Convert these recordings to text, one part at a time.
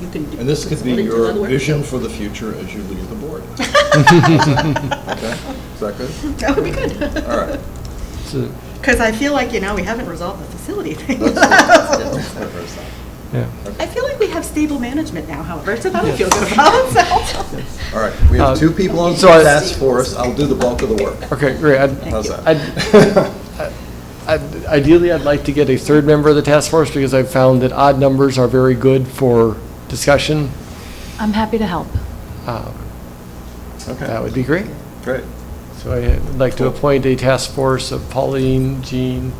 you can do. And this could be split it to your other work. vision for the future as you leave the board. Okay, is that good? That would be good. All right. So, Because I feel like, you know, we haven't resolved the facility thing. That's good. yeah. I feel like we have stable management now, however, so that would feel good about itself. All right, we have Uh, two people on the so I- task force, I'll do the bulk of the work. Okay, great. I'd- How's you. that? I'd- I'd- Ideally, I'd like to get a third member of the task force because I've found that odd numbers are very good for discussion. I'm happy to help. Uh, That Okay, would be great. great. So I'd like to appoint a task force of Pauline, Jean,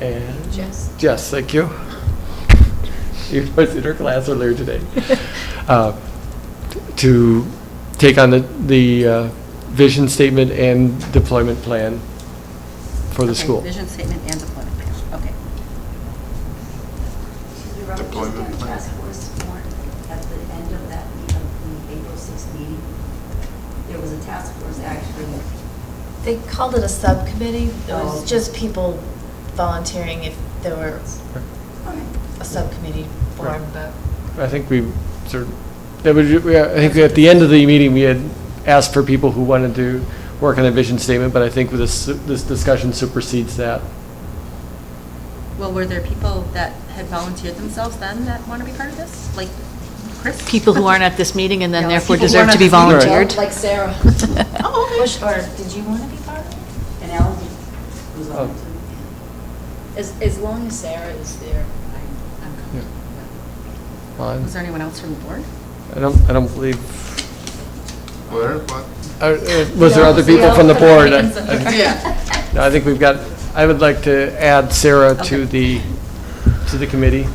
and Jess? Jess, thank you. You was in her class earlier today. Uh, To take on the, the uh, vision statement and deployment plan for the Okay, school. Vision statement and deployment plan, okay. Deployment plan. Task force formed at the end of that, meet- of the April 6th meeting. There was a task force actually, They called it a subcommittee. It was Oh. just people volunteering if there were a subcommittee Right. formed, but. I think we sort of, that would, we- I think at the end of the meeting, we had asked for people who wanted to work on a vision statement, but I think this, this discussion supersedes that. Well, were there people that had volunteered themselves then that want to be part of this? Like Chris? People who aren't at this meeting and Yeah, then therefore people who deserve aren't at to be this meeting. Right. volunteered. Like Sarah. Oh, okay. Bush, Or did you want to be part of it? and Alan was on Oh. it too. As, as long as Sarah is there. I'm- I'm Yeah. comfortable. Well, Was there anyone else from the board? I don't, I don't believe, Where, what? uh, uh, was there other people from the board? I- Yeah. I think we've got, I would like to add Sarah to Okay. the, to the committee.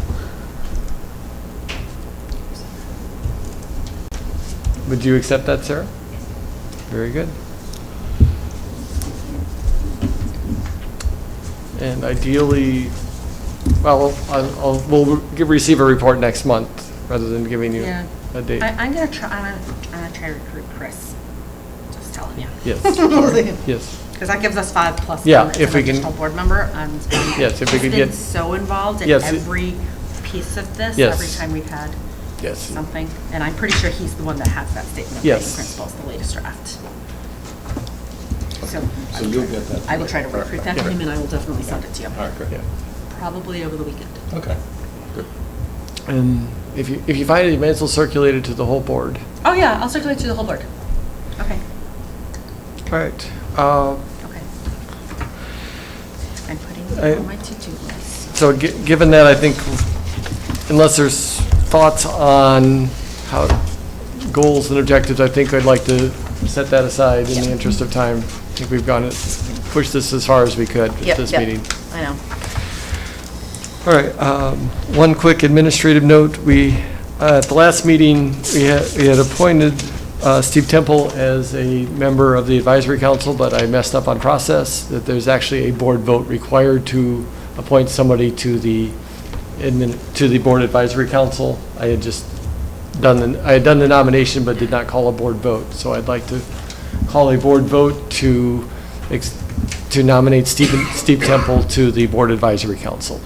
Would you accept that, Sarah? Very good. And ideally, well, I'll, I'll- we'll give- receive a report next month rather than giving you Yeah. a date. I, I'm gonna try, I'm gonna, I'm gonna try to recruit Chris. Just telling you. Yes, yes. Because that gives us five plus. Yeah, minutes if of we can- Additional board member. um, and Yes, if we could He's been get- so involved in Yes, it- every piece of this, Yes. every time we've had Yes. something. And I'm pretty sure he's the one that has that statement of Yes. main principles, the latest draft. So So you'll get that. I will try to recruit that from him and I will definitely send it to you. All right, great. Yeah. Probably over the weekend. Okay, good. And if you, if you find it, you may as well circulate it to the whole board. Oh, yeah, I'll circulate to the whole board. Okay, All right. Uh, okay. I'm putting I- it on my to-do list. So gi- given that, I think unless there's thoughts on how, goals and objectives, I think I'd like to set that aside in the interest of time. I think we've gone, pushed this as far as we could at Yep, this yep. meeting. I know. All right, um, one quick administrative note. We, uh, at the last meeting, we had, we had appointed uh, Steve Temple as a member of the advisory council, but I messed up on process, that there's actually a board vote required to appoint somebody to the, admin- to the board advisory council. I had just done, the- I had done the nomination but did not call a board vote. So I'd like to call a board vote to, ex- to nominate Stephen, Steve Temple to the board advisory council.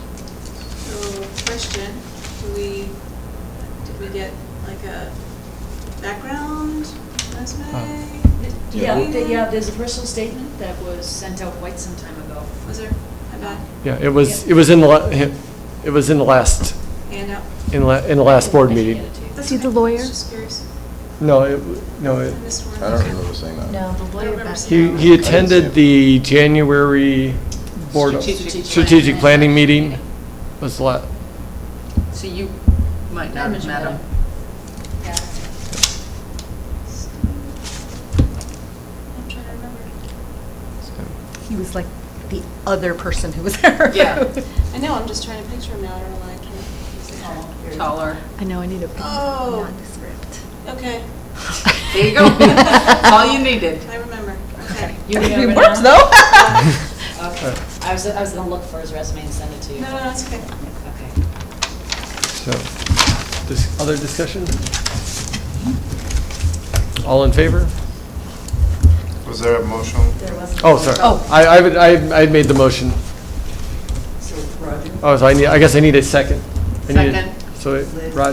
So, question, do we, did we get like a background resume? Yeah. Yeah, th- yeah, there's a personal statement that was sent out quite some time ago. Was there a back Yeah, it was, it was in the, la- it was in the last, handout? in the, la- in the last board meeting. That's See the okay. lawyer? Just curious. No, it, w- no, I it, missed one. I don't remember saying that. No, the lawyer back. he, he attended the January board, Strategic strategic planning meeting was the la, So you might not have met him. I'm trying to remember. He was like the other person who was there. Yeah. I know, I'm just trying to picture him now, I don't know why I can't. Taller. I know, I need a pen. Oh. Nondescript. Okay, There you go. All you needed. I remember, okay. You It remember works, now? though. Okay. I was, I was gonna look for his resume and send it to you. No, no, no, it's okay. Okay. so, this, other discussion? All in favor? Was there a motion? Oh, sorry. Oh. I, I, would- I, I made the motion. So Roger? Oh, so I need, I guess I need a second. I need a- So, Rod,